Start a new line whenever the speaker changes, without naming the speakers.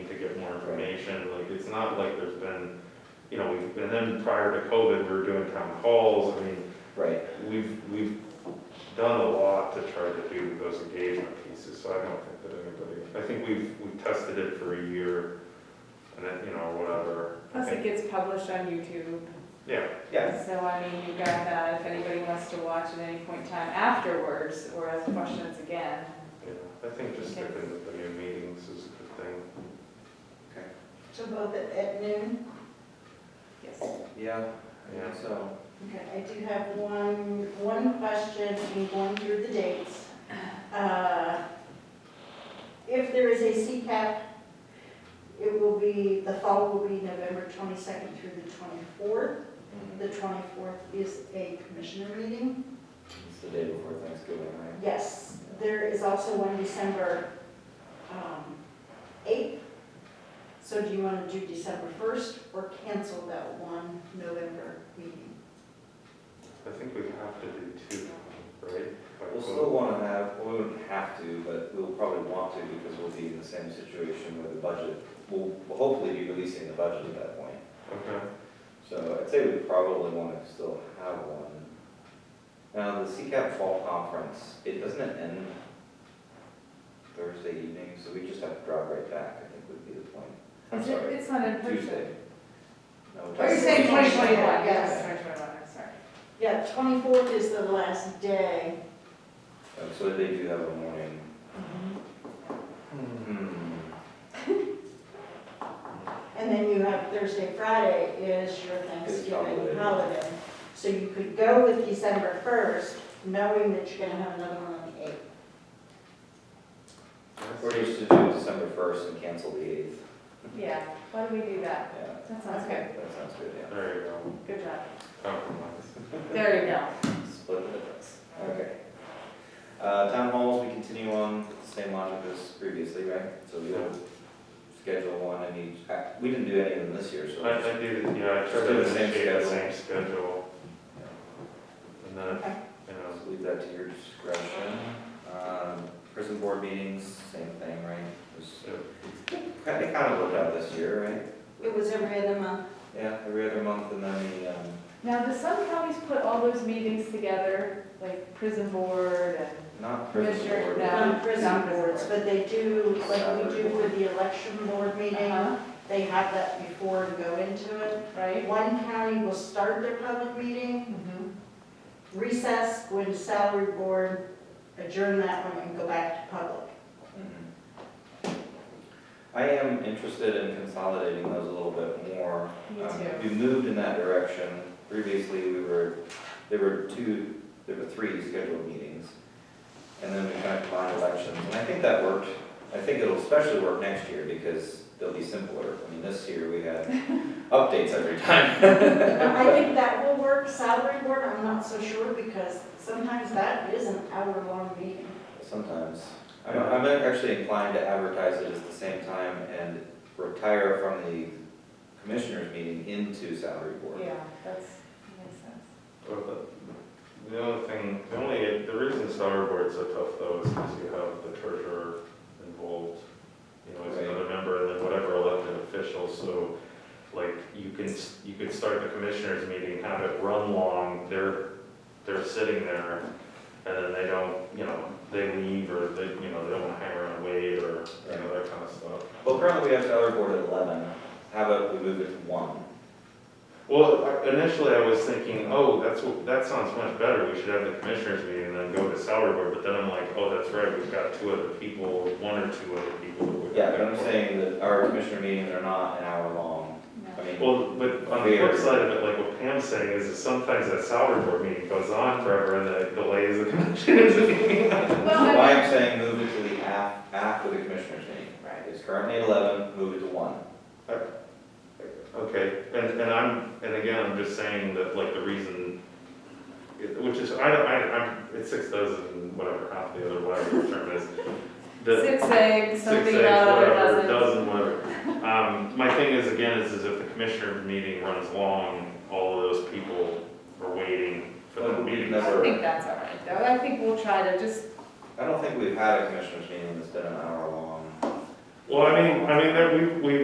not like there's been, you know, we've, and then prior to COVID, we were doing town halls, I mean,
Right,
we've, we've done a lot to try to do those engagement pieces, so I don't think that anybody, I think we've, we've tested it for a year, and then, you know, whatever. I
Plus it
think-
gets published on YouTube,
Yeah,
yeah,
so I mean, you've got that, if anybody wants to watch at any point in time afterwards, or has questions again.
yeah, I think just sticking with the new meetings is a good thing.
So both at- at noon?
Yes.
yeah,
Yeah.
yeah, so,
Okay, I do have one, one question in going through the dates. Uh, If there is a CCAP, it will be, the fall will be November 22nd through the 24th.
mm,
The 24th is a commissioner meeting.
it's the day before Thanksgiving, right?
Yes, there is also one December um, 8th. So do you want to do December 1st or cancel that one November meeting?
I think we have to do two, right? Like,
We'll still wanna have, well, we wouldn't have to, but we'll probably want to because we'll be in the same situation with the budget. We'll we'll hopefully be releasing the budget at that point.
Okay,
So I'd say we probably want to still have one. Now, the CCAP Fall Conference, it doesn't it end Thursday evening, so we just have to drive right back, I think would be the point. I'm
Is it-
sorry,
It's not in person.
Tuesday. No,
Oh, you're
Tuesday.
saying twenty twenty-one, yes,
Yes.
twenty twenty-one, I'm sorry.
Yeah, twenty-fourth is the last day.
Oh, So they do have a morning. Hmm.
And then you have Thursday, Friday is your
holiday.
Thanksgiving holiday. So you could go with December first, knowing that you're gonna have another one on the eighth.
Or you should do December first and cancel the eighth.
Yeah, why don't we do that?
Yeah,
That sounds good,
that sounds good, yeah.
there you go,
good job.
compromise.
There you go.
Split the difference. Okay. Uh, town halls, we continue on with the same logic as previously, right? So we'll schedule one in each, uh, we didn't do any of them this year, so.
I, I do, yeah, I try to
Do the same
initiate the
schedule.
same schedule,
Yeah.
and then,
Okay.
you know,
Just leave that to your discretion. Um, prison board meetings, same thing, right? Just-
so-
Kind of, kind of worked out this year, right?
It was every other month.
Yeah, every other month and then the, um,
Now, do some counties put all those meetings together, like prison board and
not prison
Commissioner,
board.
no.
Um, prison
Yeah.
boards, but they do, like we do with the election board meeting,
Uh-huh,
they have that before and go into it.
right?
One county will start their public meeting,
Mhm.
recess, go into salary board, adjourn that one and go back to public.
Mhm. I am interested in consolidating those a little bit more.
Me
Um,
too.
We moved in that direction. Previously, we were, there were two, there were three scheduled meetings. And then we kind of combined elections, and I think that worked. I think it'll especially work next year because they'll be simpler. I mean, this year we had updates every time.
I think that will work, salary board, I'm not so sure, because sometimes that is an hour-long meeting.
Sometimes. I'm, I'm actually inclined to advertise it at the same time and retire from the commissioners meeting into salary board.
Yeah, that's, makes sense.
Well, the- The only thing, the only, the reason salary board's so tough though is because you have the treasurer involved, you know, as
Right.
another member, and then whatever elected official, so, like, you can, s- you could start the commissioners meeting, have it run long, they're, they're sitting there, and then they don't, you know, they leave, or they, you know, they don't hang around and wait, or, you know, that kind of stuff.
Well, currently we have salary board at eleven. How about we move it to one?
Well, I- initially I was thinking, oh, that's, what- that sounds much better, we should have the commissioners meeting and then go to salary board, but then I'm like, oh, that's right, we've got two other people, one or two other people. that we're-
Yeah, but I'm saying that our commissioner meetings are not an hour long. I
No.
mean,
Well, but on the flip side of it, like what Pam's saying is that sometimes that salary board meeting goes on forever and that delays the commissioners meeting.
Well,
why I'm saying move it to the af, after the commissioners meeting.
Right.
It's currently at eleven, move it to one.
Okay, and, and I'm, and again, I'm just saying that like the reason, which is, I don't, I, I'm, it's six dozen, whatever, half the other, whatever the term is. The-
Six eggs,
Six
something
eggs,
about a
whatever,
dozen.
dozen, whatever. Um, my thing is, again, is, is if the commissioner meeting runs long, all of those people are waiting for
Well,
the
we've
meeting.
never-
I think that's all right, though. I think we'll try to just,
I don't think we've had a commissioners meeting that's been an hour long.
Well, I mean, I mean, there, we, we